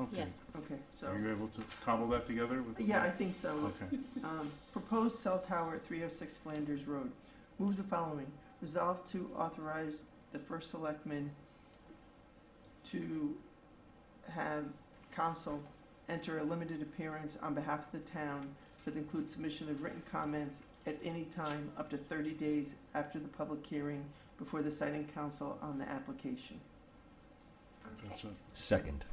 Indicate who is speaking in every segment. Speaker 1: Okay.
Speaker 2: Yes.
Speaker 1: Okay, so,
Speaker 3: Are you able to cobble that together with?
Speaker 1: yeah, I think so.
Speaker 3: Okay,
Speaker 1: Um, proposed cell tower at three oh six Flanders Road. Move the following. Resolve to authorize the first selectman to have counsel enter a limited appearance on behalf of the town that includes submission of written comments at any time up to thirty days after the public hearing before the siting council on the application.
Speaker 3: that's it.
Speaker 4: Second.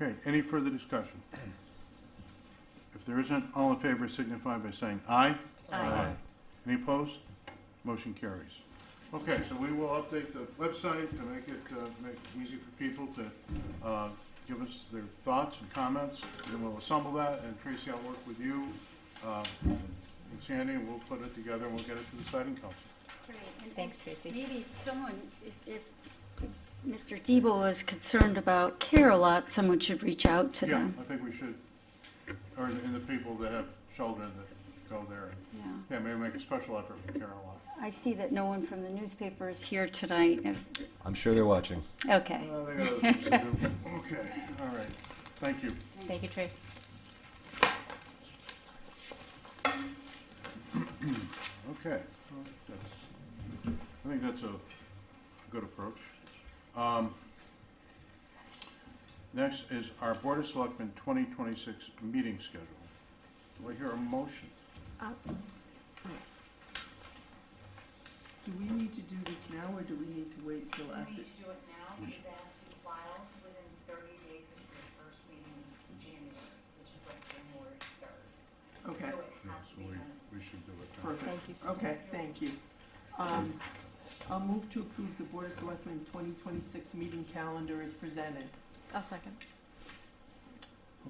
Speaker 3: Okay, any further discussion? If there isn't, all in favor signify by saying aye.
Speaker 2: Aye.
Speaker 3: Any opposed? Motion carries. Okay, so we will update the website to make it, uh, make it easy for people to, uh, give us their thoughts and comments. Then we'll assemble that, and Tracy, I'll work with you, uh, and Sandy, and we'll put it together, and we'll get it to the siting council.
Speaker 5: Great, and- and
Speaker 2: Thanks, Tracy.
Speaker 5: Maybe someone, if- if Mr. Debo was concerned about care a lot, someone should reach out to
Speaker 3: Yeah,
Speaker 5: them.
Speaker 3: I think we should, or, and the people that have children that go there,
Speaker 5: Yeah.
Speaker 3: yeah, maybe make a special effort with Carolina.
Speaker 5: I see that no one from the newspaper is here tonight.
Speaker 4: I'm sure they're watching.
Speaker 5: Okay.
Speaker 3: Well, they got other things to do. Okay, all right, thank you.
Speaker 2: Thank you, Trace.
Speaker 3: Okay, well, that's, I think that's a good approach. Um, Next is our Board of Selectmen 2026 meeting schedule. Do I hear a motion?
Speaker 1: Do we need to do this now, or do we need to wait till
Speaker 6: You
Speaker 1: after?
Speaker 6: need to do it now, because it has to be filed within thirty days of your first meeting in January, which is like January third.
Speaker 1: Okay.
Speaker 6: So it
Speaker 3: Yeah,
Speaker 6: has to
Speaker 3: so
Speaker 6: be
Speaker 3: we,
Speaker 6: done.
Speaker 3: we should do it. now.
Speaker 1: Perfect.
Speaker 2: Thank you so much.
Speaker 1: Okay, thank you. Um, I'll move to approve the Board of Selectmen 2026 meeting calendar as presented.
Speaker 2: I'll second.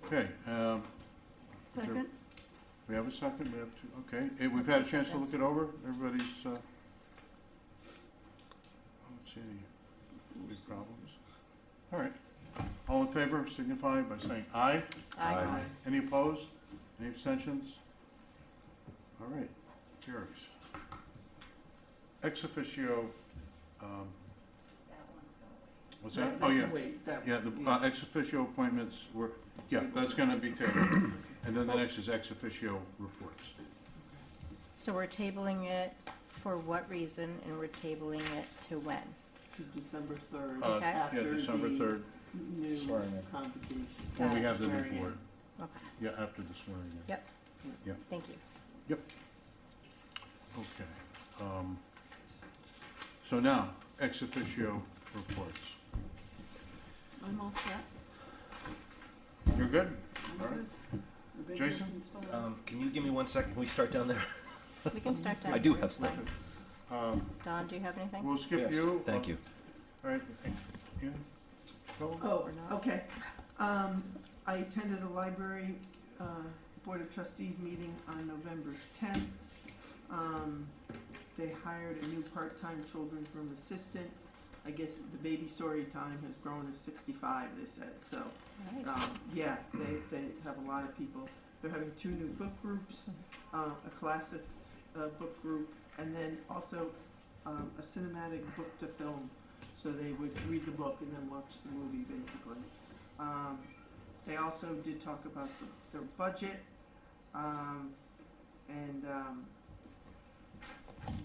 Speaker 3: Okay, um, Second. we have a second, we have two, okay. Eh, We've had a chance to look it over, everybody's, uh, I don't see any big problems. All right, all in favor signify by saying aye.
Speaker 4: Aye.
Speaker 3: Any opposed? Any abstentions? All right, carries. Ex officio, um,
Speaker 6: That one's gonna wait.
Speaker 3: what's that?
Speaker 1: That-
Speaker 3: Oh,
Speaker 1: that-
Speaker 3: yeah,
Speaker 1: Wait, that.
Speaker 3: yeah, the uh, ex officio appointments were, yeah, that's gonna be tabled. And then the next is ex officio reports.
Speaker 2: So we're tabling it for what reason, and we're tabling it to when?
Speaker 1: To December 3rd.
Speaker 3: Uh,
Speaker 2: Okay.
Speaker 3: Yeah,
Speaker 1: after
Speaker 3: December
Speaker 1: the
Speaker 3: third,
Speaker 1: New
Speaker 4: Sorry, Nick.
Speaker 1: convocation.
Speaker 3: when we
Speaker 2: Got it.
Speaker 3: have the
Speaker 1: Swearing in.
Speaker 3: report.
Speaker 2: Okay,
Speaker 3: Yeah, after the swearing in.
Speaker 2: yep.
Speaker 3: Yeah.
Speaker 2: Thank you.
Speaker 3: Okay. um, So now, ex officio reports.
Speaker 7: I'm all set.
Speaker 3: You're good?
Speaker 7: I'm
Speaker 3: All right.
Speaker 7: good. The big
Speaker 3: Jason?
Speaker 7: person's full.
Speaker 4: Um, can you give me one second? Can we start down there?
Speaker 2: We can start down.
Speaker 4: I do
Speaker 2: here.
Speaker 4: have stuff.
Speaker 3: Um,
Speaker 2: Don, do you have anything?
Speaker 3: We'll skip you.
Speaker 4: Thank you.
Speaker 3: All right. Yeah. Go.
Speaker 1: Oh,
Speaker 2: Or not.
Speaker 1: okay. Um, I attended a library, uh, Board of Trustees meeting on November tenth. Um, they hired a new part-time children's room assistant. I guess the baby story time has grown to sixty-five, they said, so,
Speaker 2: Nice.
Speaker 1: um, yeah, they, they have a lot of people. They're having two new book groups, uh, a classics, uh, book group, and then also, um, a cinematic book to film. So they would read the book and then watch the movie, basically. Um, they also did talk about the, their budget, um, and, um,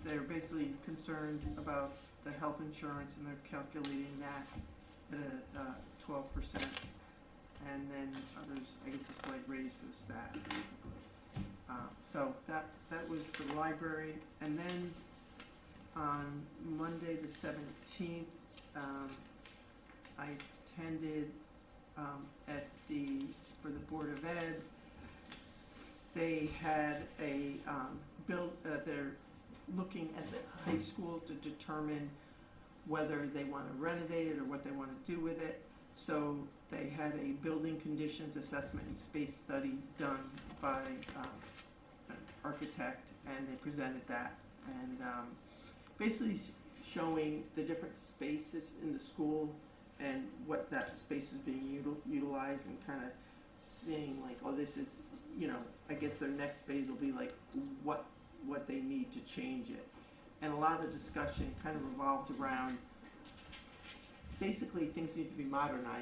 Speaker 1: they're basically concerned about the health insurance and they're calculating that at a, uh, twelve percent. And then others, I guess a slight raise for the staff, basically. Um, so that, that was the library, and then on Monday, the seventeenth, um, I attended, um, at the, for the Board of Ed. They had a, um, build, uh, they're looking at the high school to determine whether they wanna renovate it or what they wanna do with it. So they had a building conditions assessment and space study done by, um, an architect, and they presented that. And, um, basically s- showing the different spaces in the school and what that space is being util- utilized and kind of seeing like, oh, this is, you know, I guess their next phase will be like what what they need to change it. And a lot of the discussion kind of revolved around basically things need to be modernized.